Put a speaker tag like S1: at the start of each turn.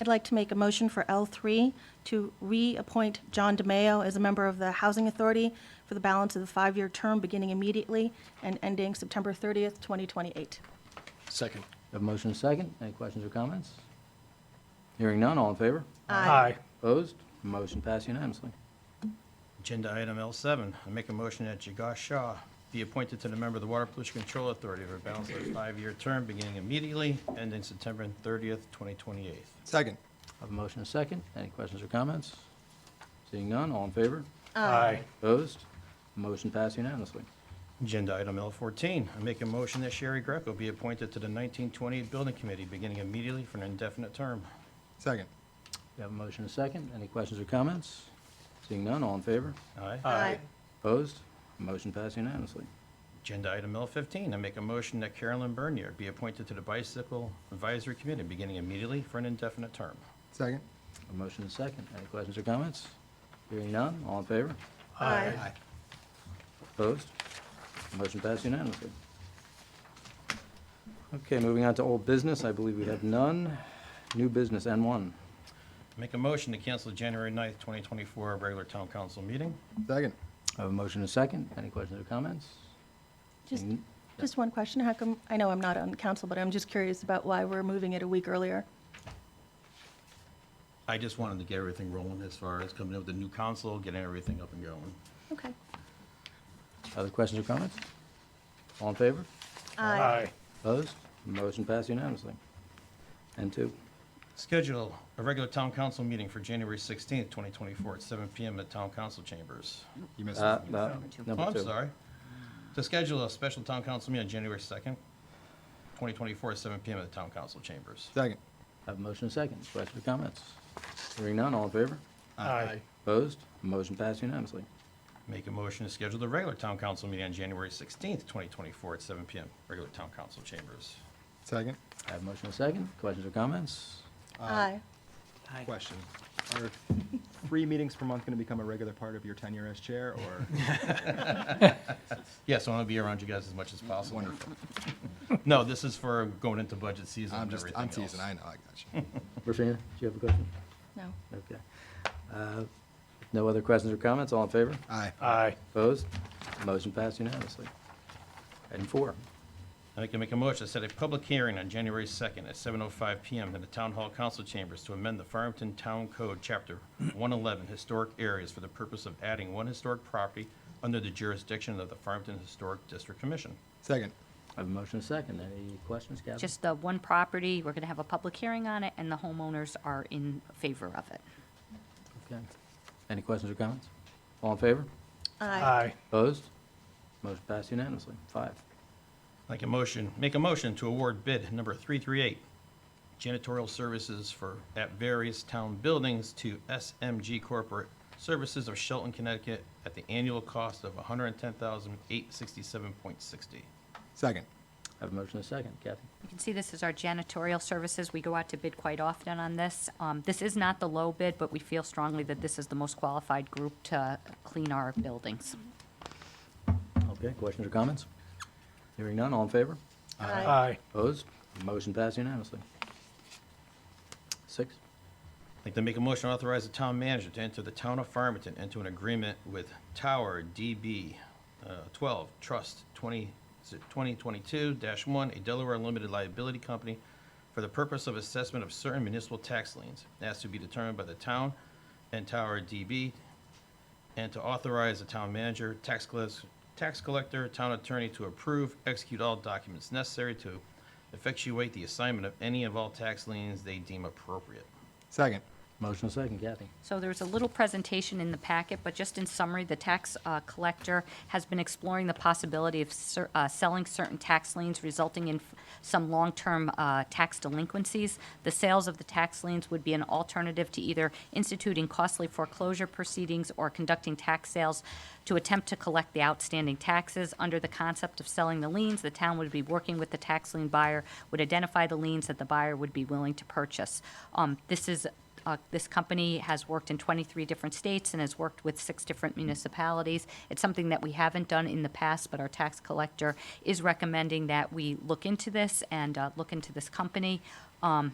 S1: I'd like to make a motion for L3 to reappoint John DeMayo as a member of the Housing Authority for the balance of the five-year term beginning immediately and ending September 30th, 2028.
S2: Second.
S3: Have a motion and a second. Any questions or comments? Hearing none, all in favor?
S2: Aye.
S3: Opposed? Motion passed unanimously.
S4: Agenda item L7, I make a motion that Jagash Shah be appointed to the member of the Water Pollution Control Authority for a balance of a five-year term beginning immediately, ending September 30th, 2028.
S2: Second.
S3: Have a motion and a second. Any questions or comments? Seeing none, all in favor?
S2: Aye.
S3: Opposed? Motion passed unanimously.
S4: Agenda item L14, I make a motion that Sherry Greco be appointed to the 1928 Building Committee beginning immediately for an indefinite term.
S2: Second.
S3: We have a motion and a second. Any questions or comments? Seeing none, all in favor?
S4: Aye.
S2: Aye.
S3: Opposed? Motion passed unanimously.
S4: Agenda item L15, I make a motion that Carolyn Bernier be appointed to the Bicycle Advisory Committee beginning immediately for an indefinite term.
S2: Second.
S3: A motion and a second. Any questions or comments? Hearing none, all in favor?
S1: Aye.
S3: Opposed? Motion passed unanimously. Okay, moving on to old business, I believe we have none. New business, N1.
S4: Make a motion to cancel January 9th, 2024 regular town council meeting.
S2: Second.
S3: I have a motion and a second. Any questions or comments?
S1: Just,
S3: Seeing-
S1: just one question. How come, I know I'm not on council, but I'm just curious about why we're moving it a week earlier.
S4: I just wanted to get everything rolling as far as coming up with the new council, getting everything up and going.
S1: Okay.
S3: Other questions or comments? All in favor? Opposed? Motion passed unanimously. N2.
S4: Schedule a regular town council meeting for January 16th, 2024, at 7 PM at Town Council Chambers.
S2: You missed
S3: Uh,
S2: it.
S3: no,
S4: Oh,
S3: Number
S4: I'm
S3: two.
S4: sorry. To schedule a special town council meeting on January 2nd, 2024, at 7 PM at the Town Council Chambers.
S2: Second.
S3: I Have a motion and a second. Questions or comments? Hearing none, all in favor?
S2: Aye.
S3: Opposed? Motion passed unanimously.
S4: Make a motion to schedule the regular town council meeting on January 16th, 2024, at 7 PM, regular Town Council Chambers.
S2: Second. Uh,
S3: I Have a motion and a second. Questions or comments?
S1: Aye.
S2: Question. Are three meetings per month going to become a regular part of your tenure as chair, or?
S4: Yes, I want to be around you guys as much as possible.
S2: Wonderful.
S4: No, this is for going into budget season
S2: I'm
S4: and
S2: just,
S4: everything
S2: I'm
S4: else.
S2: teasing, I know, I got you.
S3: Regina, do you have a question?
S1: No.
S3: Okay. Uh, No other questions or comments? All in favor?
S2: Aye.
S5: Aye.
S3: Opposed? Motion passed unanimously. Item four.
S4: I can make a motion to set a public hearing on January 2nd at 7:05 PM in the Town Hall Council Chambers to amend the Farmington Town Code, Chapter 111, Historic Areas for the purpose of adding one historic property under the jurisdiction of the Farmington Historic District Commission.
S2: Second.
S3: I have a motion and a second. Any questions, Kathy?
S6: Just the one property, we're going to have a public hearing on it, and the homeowners are in favor of it.
S3: Okay. Any questions or comments? All in favor?
S1: Aye.
S3: Opposed? Motion passed unanimously. Five.
S4: Like a motion, make a motion to award bid number 338, janitorial services for, at various town buildings to SMG Corporate Services of Shelton, Connecticut, at the annual cost of $110,867.60.
S2: Second.
S3: I have a motion and a second. Kathy?
S6: You can see this is our janitorial services. We go out to bid quite often on this. Um, This is not the low bid, but we feel strongly that this is the most qualified group to clean our buildings.
S3: Okay, questions or comments? Hearing none, all in favor?
S1: Aye.
S5: Aye.
S3: Opposed? Motion passed unanimously. Six.
S4: Like to make a motion to authorize the town manager to enter the town of Farmington into an agreement with Tower DB uh, 12 Trust 20 is it 2022-1, a Delaware limited liability company, for the purpose of assessment of certain municipal tax liens, as to be determined by the town and Tower DB, and to authorize the town manager, tax collector, tax collector, town attorney to approve, execute all documents necessary to effectuate the assignment of any of all tax liens they deem appropriate.
S2: Second.
S3: Motion and a second. Kathy?
S6: So there's a little presentation in the packet, but just in summary, the tax uh, collector has been exploring the possibility of cer- uh, selling certain tax liens resulting in f- some long-term uh, tax delinquencies. The sales of the tax liens would be an alternative to either instituting costly foreclosure proceedings or conducting tax sales to attempt to collect the outstanding taxes. Under the concept of selling the liens, the town would be working with the tax lien buyer, would identify the liens that the buyer would be willing to purchase. Um, This is uh, This company has worked in 23 different states and has worked with six different municipalities. It's something that we haven't done in the past, but our tax collector is recommending that we look into this and uh, look into this company. Um,